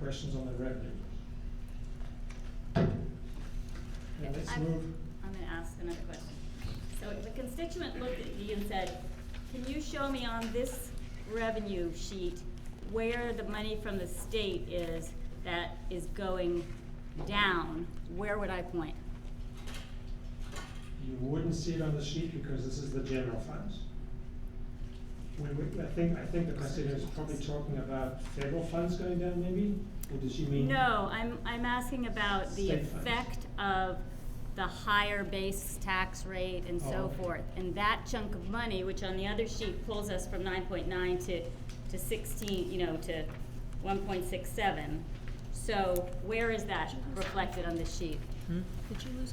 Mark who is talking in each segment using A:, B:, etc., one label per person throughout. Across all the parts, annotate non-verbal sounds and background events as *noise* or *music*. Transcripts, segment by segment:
A: questions on the revenue? Now, let's
B: I'm,
A: move,
B: I'm gonna ask another question. So the constituent looked at me and said, can you show me on this revenue sheet where the money from the state is that is going down? Where would I point?
A: you wouldn't see it on the sheet because this is the general fund. We, we, I think, I think the constituent is probably talking about federal funds going down maybe, or does she mean?
B: No, I'm, I'm asking about the
A: State funds.
B: effect of the higher base tax rate and
A: Oh,
B: so
A: okay.
B: forth. And that chunk of money, which on the other sheet pulls us from nine point nine to, to sixteen, you know, to one point six seven. So where is that reflected on this sheet?
C: Did you lose Wi-Fi?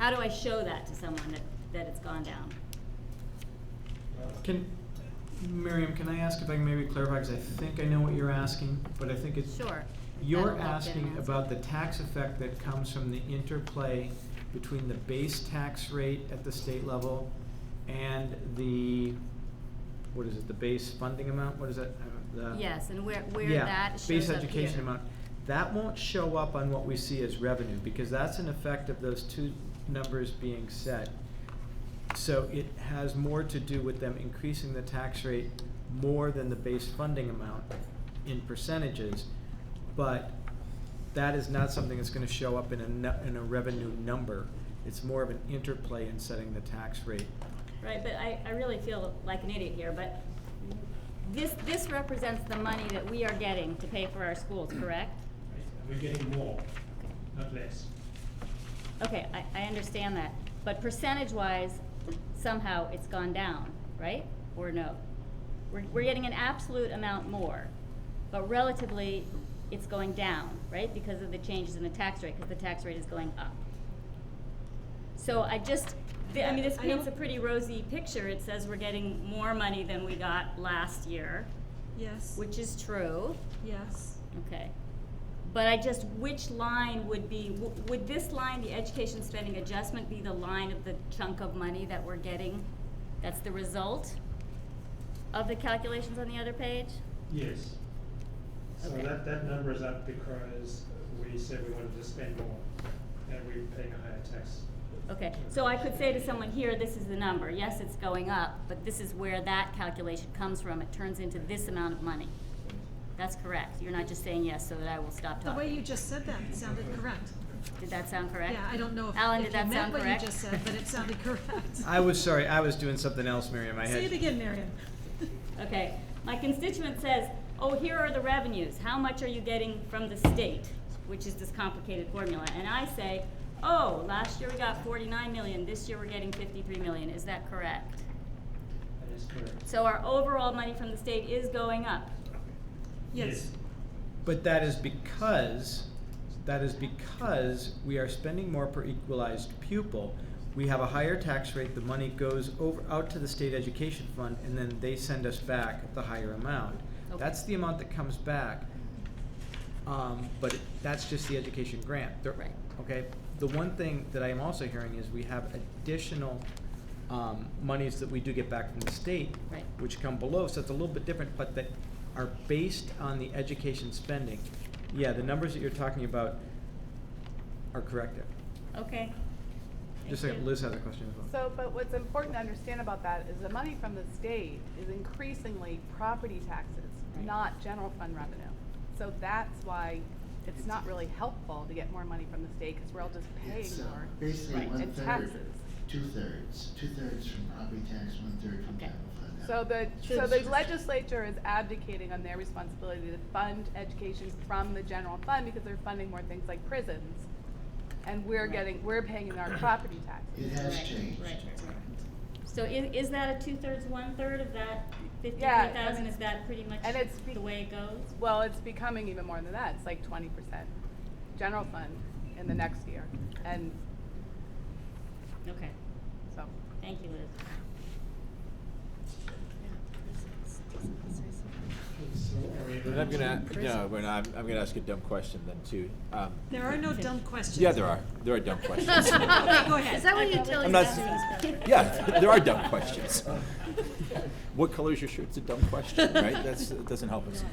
B: How do I show that to someone that, that it's gone down?
A: Well,
D: Can, Miriam, can I ask if I can maybe clarify, because I think I know what you're asking, but I think it's.
B: Sure.
D: You're
B: That'll help them
D: asking
B: answer.
D: about the tax effect that comes from the interplay between the base tax rate at the state level and the, what is it, the base funding amount, what is that? Uh, the-
B: Yes, and where, where
D: Yeah,
B: that shows up
D: Base education
B: here.
D: amount, that won't show up on what we see as revenue, because that's an effect of those two numbers being set. So it has more to do with them increasing the tax rate more than the base funding amount in percentages. But that is not something that's gonna show up in a nu- in a revenue number. It's more of an interplay in setting the tax rate.
B: Right, but I, I really feel like an idiot here, but this, this represents the money that we are getting to pay for our schools, correct?
A: We're getting more, not less.
B: Okay, I, I understand that, but percentage-wise, somehow it's gone down, right? Or no? We're, we're getting an absolute amount more, but relatively, it's going down, right? Because of the changes in the tax rate, because the tax rate is going up. So I just, th- I mean, this
C: I
B: paints a
C: don't-
B: pretty rosy picture. It says we're getting more money than we got last year,
C: Yes.
B: which is true.
C: Yes.
B: Okay. But I just, which line would be, w- would this line, the education spending adjustment, be the line of the chunk of money that we're getting? That's the result of the calculations on the other page?
A: Yes. So
B: Okay.
A: that, that number is up because we said we wanted to spend more, and we're paying a higher tax.
B: Okay, so I could say to someone here, this is the number, yes, it's going up, but this is where that calculation comes from, it turns into this amount of money. That's correct, you're not just saying yes so that I will stop
C: The
B: talking.
C: way you just said that sounded correct.
B: Did that sound correct?
C: Yeah, I don't know if,
B: Alan,
C: if
B: did
C: you
B: that
C: meant
B: sound
C: what you
B: correct?
C: just said, but it sounded correct.
D: I was sorry, I was doing something else, Miriam, I had.
C: Say it again, Marion.
B: Okay, my constituent says, oh, here are the revenues, how much are you getting from the state? Which is this complicated formula, and I say, oh, last year we got forty-nine million, this year we're getting fifty-three million, is that correct?
A: That is correct.
B: So our overall money from the state is going up.
C: Yes.
D: But that is because, that is because we are spending more per equalized pupil. We have a higher tax rate, the money goes over, out to the state education fund, and then they send us back the higher amount.
B: Okay.
D: That's the amount that comes back. Um, but it- that's just the education grant. There-
B: Right.
D: Okay, the one thing that I am also hearing is we have additional, um, monies that we do get back from the state.
B: Right.
D: Which come below, so it's a little bit different, but that are based on the education spending. Yeah, the numbers that you're talking about are correct there.
B: Okay.
D: Just a
B: Thank
D: second,
B: you.
D: Liz has a question as well.
E: So, but what's important to understand about that is the money from the state is increasingly property taxes,
B: Right.
E: not general fund revenue. So that's why it's not really helpful to get more money from the state, because we're all just
F: It's
E: paying
F: uh,
E: more.
F: basically
B: Right.
F: one
E: And
F: third,
E: taxes.
F: two thirds, two thirds from property tax, one third from
B: Okay.
F: general fund.
E: So the, so the legislature is abdicating on their responsibility to fund education from the general fund, because they're funding more things like prisons. And we're
B: Right.
E: getting, we're paying in our property taxes.
F: It
B: Right,
F: has changed.
B: right, right. So i- is that a two-thirds, one-third of that fifty-three
E: Yeah, I
B: thousand,
E: mean-
B: is that pretty much
E: and it's be-
B: the way it goes?
E: Well, it's becoming even more than that. It's like twenty percent general fund in the next year. And
B: Okay,
E: so,
B: thank you, Liz.
A: So are we
G: Then I'm
A: ready
G: gonna,
A: to-
G: no, we're not, I'm, I'm gonna ask a dumb question then too. Um,
C: There are no dumb questions.
G: yeah, there are,
C: *laughs*
G: there are dumb questions.
C: Go ahead.
H: Is that what you tell
G: I'm
H: your
G: not-
H: students?
G: Yeah, th- *laughs* there
B: *laughs*
G: are dumb questions. What color is your shirt? It's a dumb question, right? That's, that doesn't help us.